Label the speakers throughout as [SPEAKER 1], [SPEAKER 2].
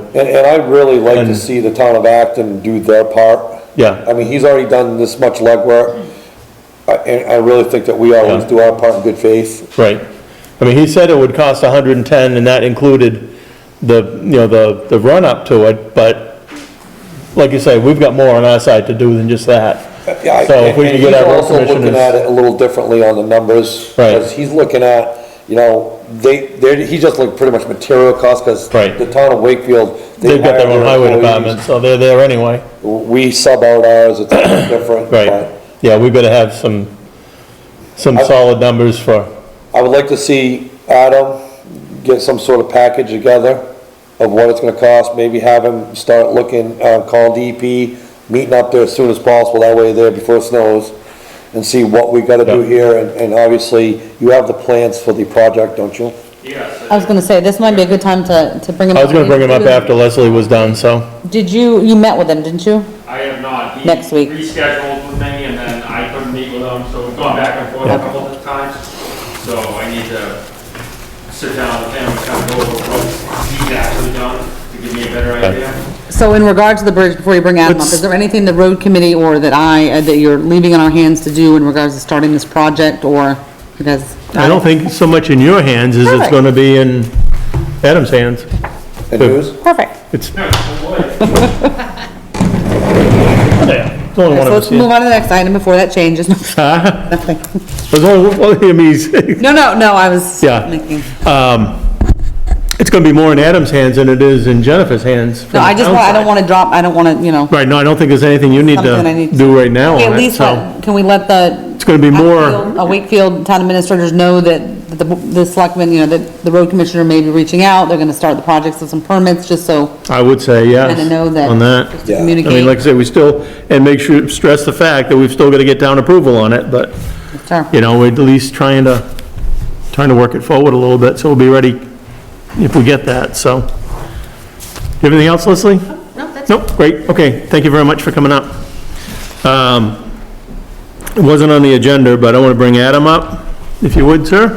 [SPEAKER 1] And, and I'd really like to
[SPEAKER 2] And-
[SPEAKER 1] see the town of Acton do their part.
[SPEAKER 2] Yeah.
[SPEAKER 1] I mean, he's already done this much legwork, I- and I really think that we always
[SPEAKER 2] Yeah.
[SPEAKER 1] do our part in good faith.
[SPEAKER 2] Right. I mean, he said it would cost 110, and that included the, you know, the, the run-up to it, but like you say, we've got more on our side to do than just that.
[SPEAKER 1] Uh, Yeah, I-
[SPEAKER 2] So if we
[SPEAKER 1] and
[SPEAKER 2] could get
[SPEAKER 1] he's
[SPEAKER 2] our road
[SPEAKER 1] also Looking at
[SPEAKER 2] commissioners,
[SPEAKER 1] it a little differently on the numbers.
[SPEAKER 2] Right.
[SPEAKER 1] Because he's looking at, you know, they, they, he just looked pretty much material costs, because
[SPEAKER 2] Right.
[SPEAKER 1] the town of Wakefield. they
[SPEAKER 2] they've got their
[SPEAKER 1] hire
[SPEAKER 2] own highway
[SPEAKER 1] employees.
[SPEAKER 2] department, so they're there anyway.
[SPEAKER 1] We sub out ours, it's a little different.
[SPEAKER 2] Right.
[SPEAKER 1] but-
[SPEAKER 2] Yeah, we better have some, some solid numbers for,
[SPEAKER 1] I would like to see Adam get some sort of package together of what it's gonna cost, maybe have him start looking, uh, call DP, meeting up there as soon as possible, that way there before it snows, and see what we gotta do
[SPEAKER 2] Yeah.
[SPEAKER 1] here, and, and obviously, you have the plans for the project, don't you?
[SPEAKER 3] Yes.
[SPEAKER 4] I was gonna say, this might be a good time to, to bring him
[SPEAKER 2] I
[SPEAKER 4] up.
[SPEAKER 2] was gonna bring them up after Leslie was done, so,
[SPEAKER 4] Did you, you met with him, didn't you?
[SPEAKER 3] I have not. He
[SPEAKER 4] Next week.
[SPEAKER 3] Rescheduled with me and then I couldn't meet with him, so we've gone back and forth a couple of times. So I need to sit down with him and kind of go over what he's actually done to give me a better idea.
[SPEAKER 4] So in regard to the bridge, before you bring Adam up,
[SPEAKER 2] Let's-
[SPEAKER 4] is there anything the road committee or that I, uh, that you're leaving in our hands to do in regards to starting this project, or it has?
[SPEAKER 2] I don't think so much in your hands as it's
[SPEAKER 4] Perfect.
[SPEAKER 2] gonna be in Adam's hands.
[SPEAKER 1] And who's?
[SPEAKER 4] Perfect.
[SPEAKER 2] It's,
[SPEAKER 3] Yeah, so what?
[SPEAKER 2] yeah, it's only one of us
[SPEAKER 4] So let's
[SPEAKER 2] here.
[SPEAKER 4] move on to the next item before that changes.
[SPEAKER 2] Huh? There's only one of him, he's-
[SPEAKER 4] No, no, no, I was
[SPEAKER 2] Yeah.
[SPEAKER 4] making,
[SPEAKER 2] um, it's gonna be more in Adam's hands than it is in Jennifer's hands. from
[SPEAKER 4] no, I
[SPEAKER 2] the
[SPEAKER 4] just,
[SPEAKER 2] town
[SPEAKER 4] wa- I don't
[SPEAKER 2] side.
[SPEAKER 4] wanna drop, I don't wanna, you know.
[SPEAKER 2] Right, no, I don't think there's anything you need
[SPEAKER 4] Something I
[SPEAKER 2] to
[SPEAKER 4] need to-
[SPEAKER 2] do right now
[SPEAKER 4] Okay, At
[SPEAKER 2] on it,
[SPEAKER 4] least,
[SPEAKER 2] so.
[SPEAKER 4] let- can we let the?
[SPEAKER 2] It's gonna be more,
[SPEAKER 4] Wakefield- uh, Wakefield town administrators know that the, the selectmen, you know, that the road commissioner may be reaching out, they're gonna start the projects with some permits, just so
[SPEAKER 2] I would say, yes,
[SPEAKER 4] kinda know that.
[SPEAKER 2] on
[SPEAKER 4] just
[SPEAKER 2] that.
[SPEAKER 4] to
[SPEAKER 1] Yeah. I
[SPEAKER 2] I mean, like I
[SPEAKER 4] Communicate,
[SPEAKER 2] say, we still, and make sure, stress the fact that we've still gotta get down approval on it, but,
[SPEAKER 4] Sure.
[SPEAKER 2] you know, we're at least trying to, trying to work it forward a little bit, so we'll be ready if we get that, so. Do you have anything else, Leslie?
[SPEAKER 5] No, that's,
[SPEAKER 2] Nope, great, okay, thank you very much for coming up. Um, It wasn't on the agenda, but I want to bring Adam up, if you would, sir.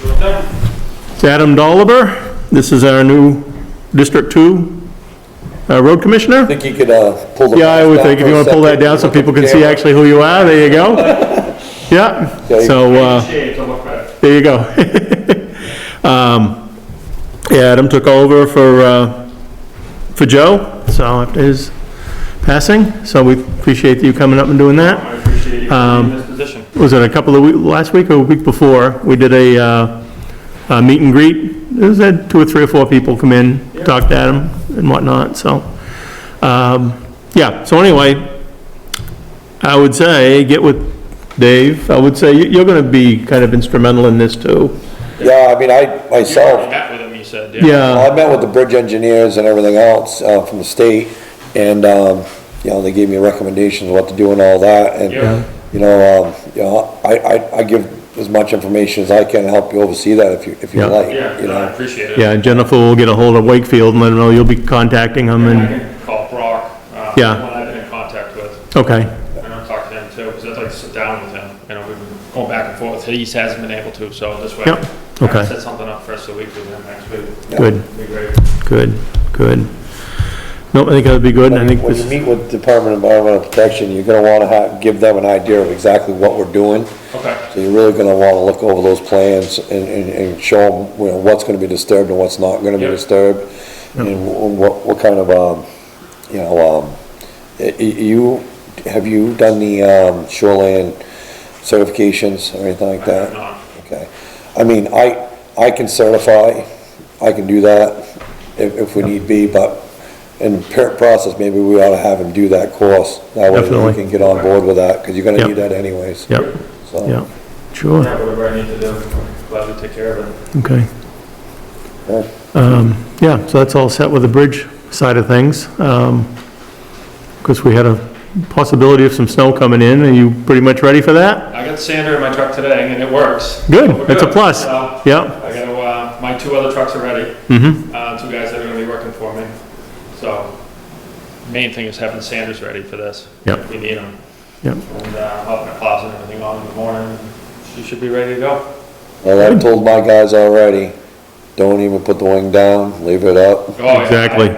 [SPEAKER 3] Sure thing.
[SPEAKER 2] It's Adam Dolliver, this is our new District Two uh, Road Commissioner.
[SPEAKER 1] Think you could, uh, pull the.
[SPEAKER 2] Yeah, I
[SPEAKER 1] mask
[SPEAKER 2] would
[SPEAKER 1] down
[SPEAKER 2] think, if
[SPEAKER 1] for
[SPEAKER 2] you
[SPEAKER 1] a
[SPEAKER 2] want to pull that
[SPEAKER 1] second,
[SPEAKER 2] down so
[SPEAKER 1] look at
[SPEAKER 2] people can
[SPEAKER 1] the
[SPEAKER 2] see
[SPEAKER 1] camera.
[SPEAKER 2] actually who you are, there you go. Yeah,
[SPEAKER 1] Okay.
[SPEAKER 2] so, uh,
[SPEAKER 3] Shade to look better.
[SPEAKER 2] there you go. Um, yeah, Adam took over for, uh, for Joe, so after his passing, so we appreciate you coming up and doing that.
[SPEAKER 3] I appreciate you being
[SPEAKER 2] Um,
[SPEAKER 3] in this position.
[SPEAKER 2] Was it a couple of week, last week or a week before, we did a, uh, a meet and greet. It was had two or three or four people come in, talk to Adam and whatnot, so. Um, yeah, so anyway, I would say, get with Dave, I would say, you- you're gonna be kind of instrumental in this too.
[SPEAKER 1] Yeah, I mean, I,
[SPEAKER 3] You already
[SPEAKER 1] myself,
[SPEAKER 3] met with him, you said, yeah?
[SPEAKER 2] Yeah,
[SPEAKER 1] well, I met with the bridge engineers and everything else, uh, from the state, and, um, you know, they gave me recommendations what to do and all that, and
[SPEAKER 3] Yeah.
[SPEAKER 1] You know, um, you know, I, I, I give as much information as I can to help you oversee that if you, if you
[SPEAKER 2] Yeah.
[SPEAKER 1] like,
[SPEAKER 3] Yeah,
[SPEAKER 1] you
[SPEAKER 3] no, I
[SPEAKER 1] know.
[SPEAKER 3] appreciate it.
[SPEAKER 2] yeah, and Jennifer will get a hold of Wakefield and let them know you'll be contacting them
[SPEAKER 3] And I
[SPEAKER 2] and,
[SPEAKER 3] can call Brock, uh,
[SPEAKER 2] Yeah.
[SPEAKER 3] one I've been in contact with.
[SPEAKER 2] okay,
[SPEAKER 3] And I'll talk to him too, because I'd like to sit down with him, you know, we've been going back and forth, he hasn't been able to, so this way.
[SPEAKER 2] Yep,
[SPEAKER 3] I
[SPEAKER 2] okay.
[SPEAKER 3] can Set something up first of the week with him next week.
[SPEAKER 2] good,
[SPEAKER 3] Be great.
[SPEAKER 2] good, good. No, I think that'd be good, and I think
[SPEAKER 1] When
[SPEAKER 2] this.
[SPEAKER 1] you meet with Department of Environmental Protection, you're gonna wanna have, give them an idea of exactly what we're doing.
[SPEAKER 3] Okay,
[SPEAKER 1] So you're really gonna wanna look over those plans and, and, and show them, you know, what's gonna be disturbed and what's not gonna be
[SPEAKER 3] Yeah.
[SPEAKER 1] disturbed. And wh- what, what kind of, um, you know, um, y- y- you, have you done the, um, shoreline certifications or anything like
[SPEAKER 3] I
[SPEAKER 1] that?
[SPEAKER 3] have not.
[SPEAKER 1] Okay, I mean, I, I can certify, I can do that if, if we need be, but in parent process, maybe we ought to have him do that course. That way
[SPEAKER 2] Definitely.
[SPEAKER 1] we can get on board with that, because you're gonna need
[SPEAKER 2] Yep.
[SPEAKER 1] that anyways.
[SPEAKER 2] Yep,
[SPEAKER 1] So,
[SPEAKER 2] yep, sure.
[SPEAKER 3] Yeah, whatever I need to do, I'm glad to take care of it.
[SPEAKER 2] Okay.
[SPEAKER 1] Yeah.
[SPEAKER 2] Um, Yeah, so that's all set with the bridge side of things. Because we had a possibility of some snow coming in, are you pretty much ready for that?
[SPEAKER 3] I got sander in my truck today, and it works. We're
[SPEAKER 2] Good, that's a plus.
[SPEAKER 3] So,
[SPEAKER 2] Yeah,
[SPEAKER 3] I got, uh, my two other trucks are ready,
[SPEAKER 2] mm-hmm,
[SPEAKER 3] uh, two guys that are gonna be working for me, so, main thing is having sanders ready for this.
[SPEAKER 2] Yep.
[SPEAKER 3] If we need them.
[SPEAKER 2] Yep.
[SPEAKER 3] And, uh, I'm up in the closet and everything on in the morning, she should be ready to go.
[SPEAKER 1] Well, I've told my guys already, don't even put the wing down, leave it up.
[SPEAKER 3] Oh, yeah, I-
[SPEAKER 2] Exactly.